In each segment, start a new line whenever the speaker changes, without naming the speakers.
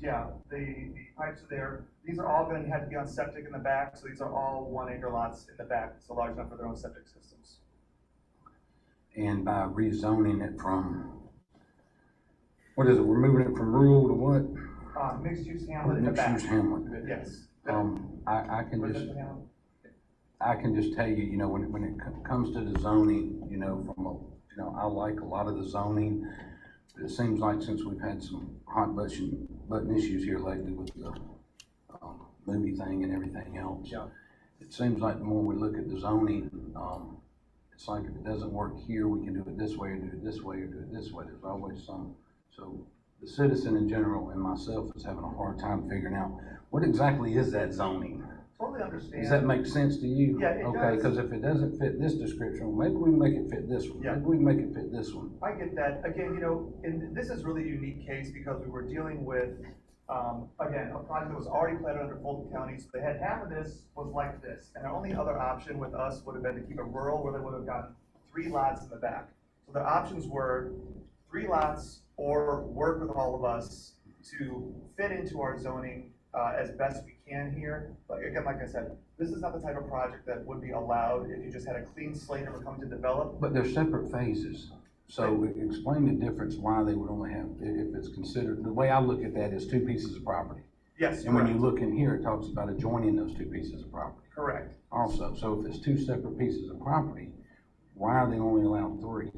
yeah, the, the pipes are there. These are all gonna have to be on septic in the back, so these are all one acre lots in the back, so large enough for their own septic systems.
And by rezoning it from, what is it, we're moving it from rural to what?
Uh, mixed use hamlet in the back.
Mixed-use hamlet.
Yes.
Um, I, I can just,
Residential hamlet.
I can just tell you, you know, when, when it co- comes to the zoning, you know, from, a you know, I like a lot of the zoning. It seems like since we've had some hot button, button issues here lately with the, um, movie thing and everything else.
Yeah.
It seems like the more we look at the zoning, um, it's like if it doesn't work here, we can do it this way, or do it this way, or do it this way, there's always some. So the citizen in general and myself is having a hard time figuring out, what exactly is that zoning?
Totally understand.
Does that make sense to you?
Yeah, it
Okay,
does.
because if it doesn't fit this description, well, maybe we can make it fit this one,
Yeah.
maybe we can make it fit this one.
I get that. Again, you know, and this is really a unique case because we were dealing with, um, again, a project that was already platted under Fulton County, so they had half of this was like this. And their only other option with us would have been to keep it rural where they would have gotten three lots in the back. So their options were three lots or work with all of us to fit into our zoning, uh, as best we can here. Like, again, like I said, this is not the type of project that would be allowed if you just had a clean slate and were coming to develop.
But they're separate phases, so e-, explain the difference why they would only have, i- if it's considered, the way I look at that is two pieces of property.
Yes,
And when you
correct,
look in here, it talks about adjoining those two pieces of property
correct.
also. So if it's two separate pieces of property, why are they only allowed three?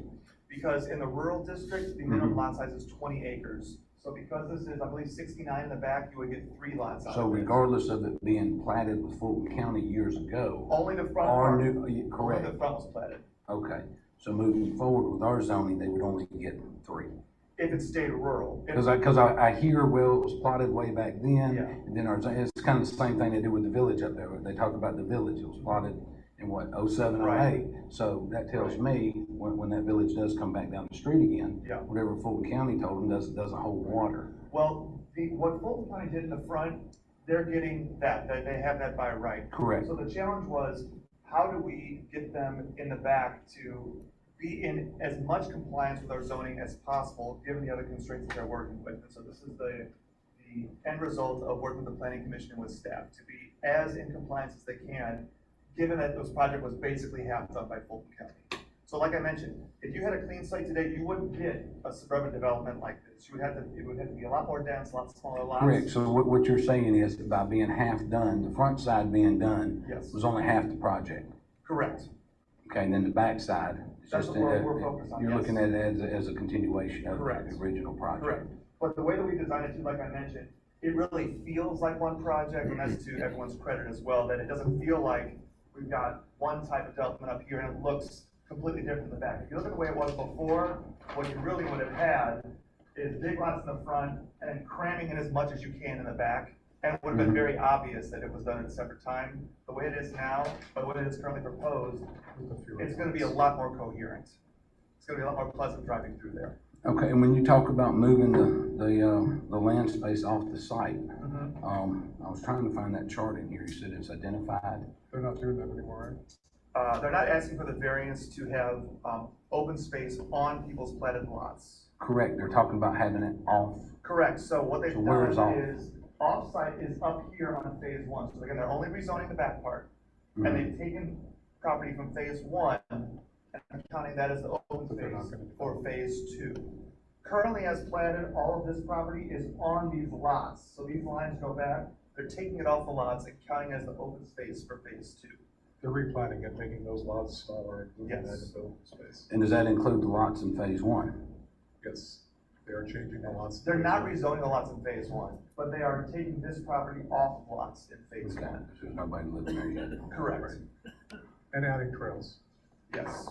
Because in the rural district, the minimum
Mhm.
lot size is twenty acres. So because this is, I believe, sixty-nine in the back, you would get three lots out
So
of this.
regardless of it being platted with Fulton County years ago,
Only the front
our
part,
new, y-
only
correct,
the front was platted.
okay. So moving forward with our zoning, they would only get three.
If it stayed rural. If-
Because I, because I, I hear, well, it was plotted way back then,
Yeah.
and then our, it's kind of the same thing they do with the village up there, where they talk about the village, it was plotted in what, oh seven, oh
Right.
eight? So that tells me, when, when that village does come back down the street again,
Yeah.
whatever Fulton County told them doesn't, doesn't hold water.
Well, the, what Fulton County did in the front, they're getting that, that they have that by right.
Correct.
So the challenge was, how do we get them in the back to be in as much compliance with our zoning as possible, given the other constraints that they're working with? And so this is the, the end result of working with the planning commission and with staff, to be as in compliance as they can, given that this project was basically half done by Fulton County. So like I mentioned, if you had a clean slate today, you wouldn't get a suburban development like this. You would have to, it would have to be a lot more dense, a lot smaller lots.
Correct, so what, what you're saying is, that by being half done, the front side being done,
Yes,
was only half the project,
correct.
okay, and then the back side is
That's
just,
what we're-
a-
we're focused on,
you're
yes.
looking at it as, a- as a continuation of
Correct.
the original project.
Correct. But the way that we designed it too, like I mentioned, it really feels like one project, and that's to everyone's credit as well, that it doesn't feel like we've got one type of development up here and it looks completely different in the back. If you look at the way it was before, what you really would have had is big lots in the front and then cramming in as much as you can in the back. And it would have been very obvious that it was done at a separate time. The way it is now, by the way it is currently proposed, it's gonna be a lot more coherent. It's gonna be a lot more pleasant driving through there.
Okay, and when you talk about moving the, the, uh, the land space off the site, um, I was trying to find that chart in here, you said it's identified.
They're not doing that anymore,
Uh, they're not asking for the variance to have, um, open space on people's platted lots.
Correct, they're talking about having it off,
Correct, so what they've
So where is
done
off?
is, offsite is up here on phase one, so again, they're only rezoning the back part. And
Mm-hmm.
Mhm.
they've taken property from phase one, and counting that as the open
But they're not
space
gonna do that.
for phase two. Currently as platted, all of this property is on these lots, so these lines go back, they're taking it off the lots and counting as the open space for phase two.
right? They're replanning it, making those lots smaller, moving that
Yes.
into open space.
and does that include the lots in phase one?
Yes, they are changing the lots.
They're not rezoning the lots in phase one, but they are taking this property off the lots in phase
Okay,
one.
there's nobody living there yet.
Correct,
And adding trails.
yes.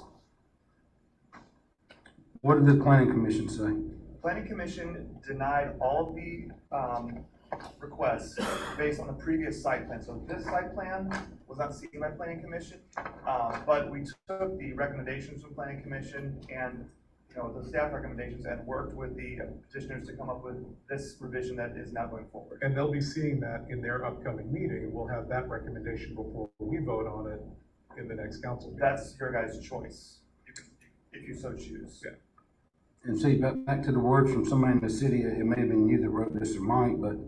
What did the planning commission say?
Planning Commission denied all of the, um, requests based on the previous site plan. So this site plan was not seen by Planning Commission, um, but we took the recommendations from Planning Commission and, you know, the staff recommendations and worked with the petitioners to come up with this revision that is now going forward.
And they'll be seeing that in their upcoming meeting. We'll have that recommendation before we vote on it in the next council meeting.
That's your guys' choice, you can- if you so choose.
Yeah.
And see, back, back to the words from somebody in the city, it may have been you that wrote this or Mike, but